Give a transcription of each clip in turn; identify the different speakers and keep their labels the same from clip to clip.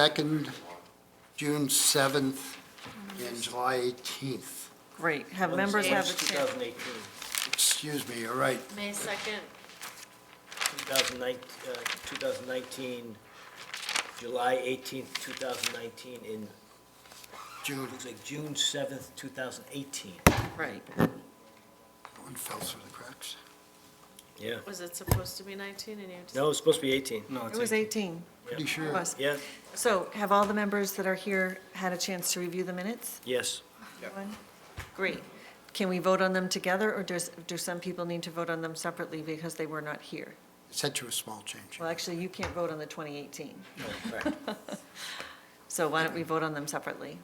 Speaker 1: 2nd, June 7th, and July 18th.
Speaker 2: Great, have members have a chance.
Speaker 3: 2018,
Speaker 1: Excuse me, you're right.
Speaker 4: May 2nd,
Speaker 3: 2019, uh, 2019, uh, July 18th, 2019, in,
Speaker 1: June,
Speaker 3: looks like June 7th, 2018.
Speaker 2: Right,
Speaker 1: one fell through the cracks.
Speaker 3: Yeah.
Speaker 4: was it supposed to be 19 and you just?
Speaker 3: No, it's supposed to be 18.
Speaker 5: No,
Speaker 2: it
Speaker 5: it's
Speaker 2: was 18,
Speaker 1: Pretty
Speaker 2: it
Speaker 1: sure.
Speaker 2: was.
Speaker 3: Yeah,
Speaker 2: So have all the members that are here had a chance to review the minutes?
Speaker 3: yes.
Speaker 2: Everyone? Great. Can we vote on them together, or does, do some people need to vote on them separately because they were not here?
Speaker 1: Sent you a small change.
Speaker 2: Well, actually, you can't vote on the 2018,
Speaker 3: Oh, Right.
Speaker 2: so why don't we vote on them separately?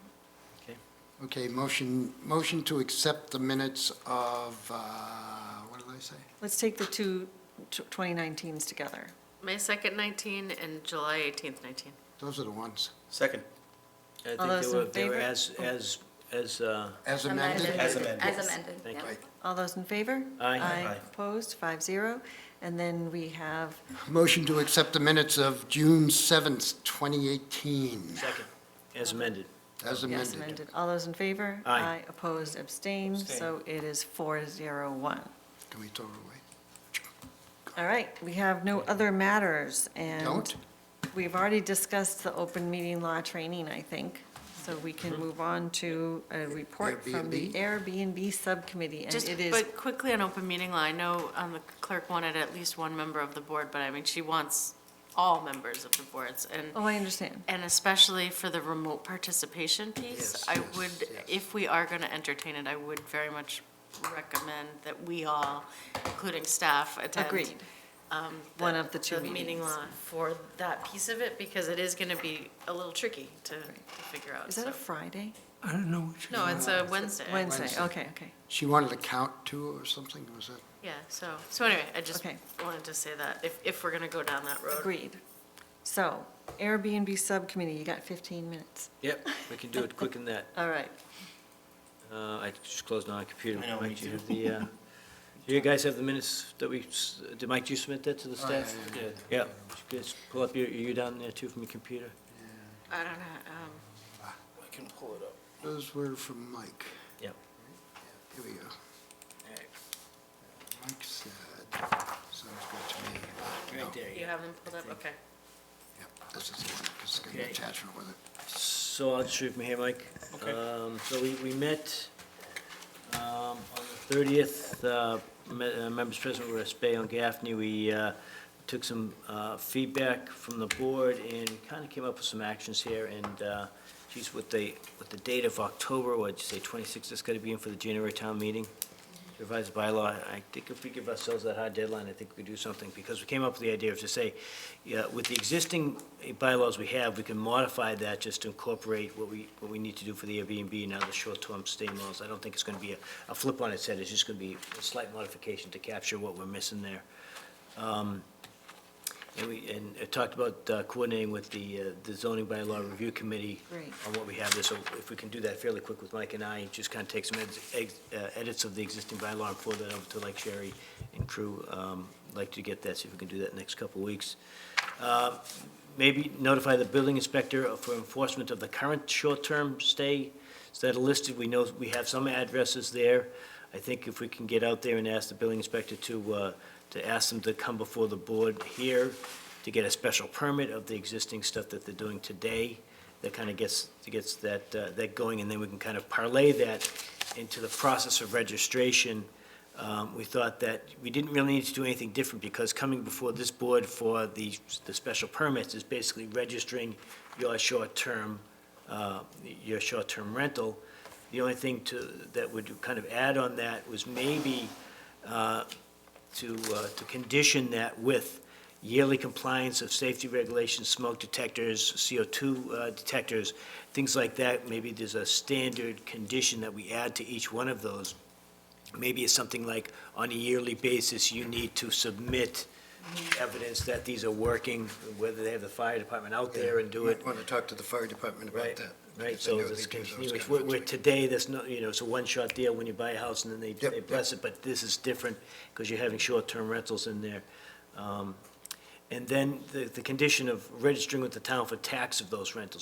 Speaker 1: Okay, motion, motion to accept the minutes of, uh, what did I say?
Speaker 2: Let's take the two tw- 2019s together.
Speaker 4: May 2nd, 19 and July 18th, 19.
Speaker 1: Those are the ones.
Speaker 5: Second,
Speaker 3: I
Speaker 2: All
Speaker 3: think
Speaker 2: those in
Speaker 3: they were, they were
Speaker 2: favor?
Speaker 3: as, as, as, uh,
Speaker 1: As amended?
Speaker 5: as amended.
Speaker 6: As amended,
Speaker 3: Thank
Speaker 6: yeah.
Speaker 1: Right.
Speaker 2: All those in favor? Aye,
Speaker 3: Aye.
Speaker 5: Aye.
Speaker 2: opposed, five zero. And then we have
Speaker 1: Motion to accept the minutes of June 7th, 2018,
Speaker 3: second, as amended.
Speaker 1: as
Speaker 2: Yes,
Speaker 1: amended.
Speaker 2: amended. All those in favor?
Speaker 3: Aye.
Speaker 2: opposed, abstained, so it is four zero one.
Speaker 1: Can we throw it away?
Speaker 2: All right, we have no other matters, and
Speaker 1: Don't?
Speaker 2: we've already discussed the open meeting law training, I think, so we can
Speaker 1: Mm-hmm.
Speaker 2: move on to a report from the Airbnb Subcommittee, and
Speaker 4: Just,
Speaker 2: it is,
Speaker 4: but quickly on open meeting law, I know um, the clerk wanted at least one member of the board, but I mean, she wants all members of the boards. And,
Speaker 2: oh, I understand.
Speaker 4: and especially for the remote participation piece,
Speaker 1: Yes,
Speaker 4: I
Speaker 1: yes,
Speaker 4: would,
Speaker 1: yes.
Speaker 4: if we are going to entertain it, I would very much recommend that we all, including staff, attend.
Speaker 2: Agreed.
Speaker 4: um,
Speaker 2: One of the two
Speaker 4: meeting
Speaker 2: meetings.
Speaker 4: law for that piece of it, because it is gonna be a little tricky to to figure out,
Speaker 2: Is that
Speaker 4: so.
Speaker 2: a Friday?
Speaker 5: I don't know what
Speaker 4: No, it's a Wednesday. I
Speaker 2: Wednesday,
Speaker 1: Wednesday.
Speaker 2: okay, okay.
Speaker 1: She wanted to count two or something, was it?
Speaker 4: Yeah, so, so anyway, I just
Speaker 2: Okay.
Speaker 4: wanted to say that, if, if we're gonna go down that road.
Speaker 2: Agreed. So Airbnb Subcommittee, you got 15 minutes.
Speaker 3: Yep, we can do it quick in that.
Speaker 2: All right.
Speaker 3: Uh, I just closed my computer.
Speaker 5: I know, me
Speaker 3: Mike, do you
Speaker 5: too.
Speaker 3: have the, uh, do you guys have the minutes that we, s- did Mike, you submit that to the
Speaker 1: Oh, yeah,
Speaker 3: staff?
Speaker 1: yeah,
Speaker 3: Yeah, just pull up your, you down there too from your computer?
Speaker 4: I don't know, um,
Speaker 5: I can pull it up.
Speaker 1: Those were from Mike.
Speaker 3: Yep.
Speaker 1: Here we go. Mike said, sounds good to me. No,
Speaker 3: Right there.
Speaker 4: you have them pulled up, okay.
Speaker 1: Yep, this is the one, because it's got an
Speaker 3: Okay.
Speaker 1: attachment with it.
Speaker 3: So I'll just read from here, Mike.
Speaker 5: Okay.
Speaker 3: Um, So we, we met um, on the 30th, uh, me- uh, members present were Espay and Gaffney. We uh, took some uh, feedback from the board and kind of came up with some actions here. And uh, geez, with the, with the date of October, what'd you say, 26th, that's got to be in for the January town meeting? revised bylaw, I think if we give ourselves that hard deadline, I think we do something, because we came up with the idea of to say, yeah, with the existing bylaws we have, we can modify that just to incorporate what we, what we need to do for the Airbnb now the short-term stay laws. I don't think it's gonna be a, a flip on its head, it's just gonna be a slight modification to capture what we're missing there. Um, And we, and I talked about uh, coordinating with the, uh, the zoning bylaw review committee
Speaker 2: Great.
Speaker 3: on what we have there, so if we can do that fairly quick with Mike and I, just kind of take some eds- ex- uh, edits of the existing bylaw and forward that over to like Sherry and crew, um, like to get that, see if we can do that next couple of weeks. Uh, Maybe notify the building inspector for enforcement of the current short-term stay that are listed, we know, we have some addresses there. I think if we can get out there and ask the building inspector to, uh, to ask them to come before the board here to get a special permit of the existing stuff that they're doing today, that kind of gets, gets that, uh, that going, and then we can kind of parlay that into the process of registration. Um, We thought that we didn't really need to do anything different, because coming before this board for the, the special permits is basically registering your short-term, uh, your short-term rental. The only thing to, that would kind of add on that was maybe uh, to, uh, to condition that with yearly compliance of safety regulations, smoke detectors, CO2 uh, detectors, things like that. Maybe there's a standard condition that we add to each one of those. Maybe it's something like, on a yearly basis, you need to submit evidence that these are working, whether they have the fire department out there and do it.
Speaker 1: Want to talk to the fire department about
Speaker 3: Right,
Speaker 1: that.
Speaker 3: Right,
Speaker 1: because I
Speaker 3: so
Speaker 1: know
Speaker 3: this
Speaker 1: they do those
Speaker 3: continuous,
Speaker 1: kinds
Speaker 3: where,
Speaker 1: of
Speaker 3: where
Speaker 1: things.
Speaker 3: today, there's no, you know, it's a one-shot deal when you buy a house and then they,
Speaker 1: Yep,
Speaker 3: they bless it, but this is different because you're having short-term rentals in there. Um, And then the, the condition of registering with the town for tax of those rentals,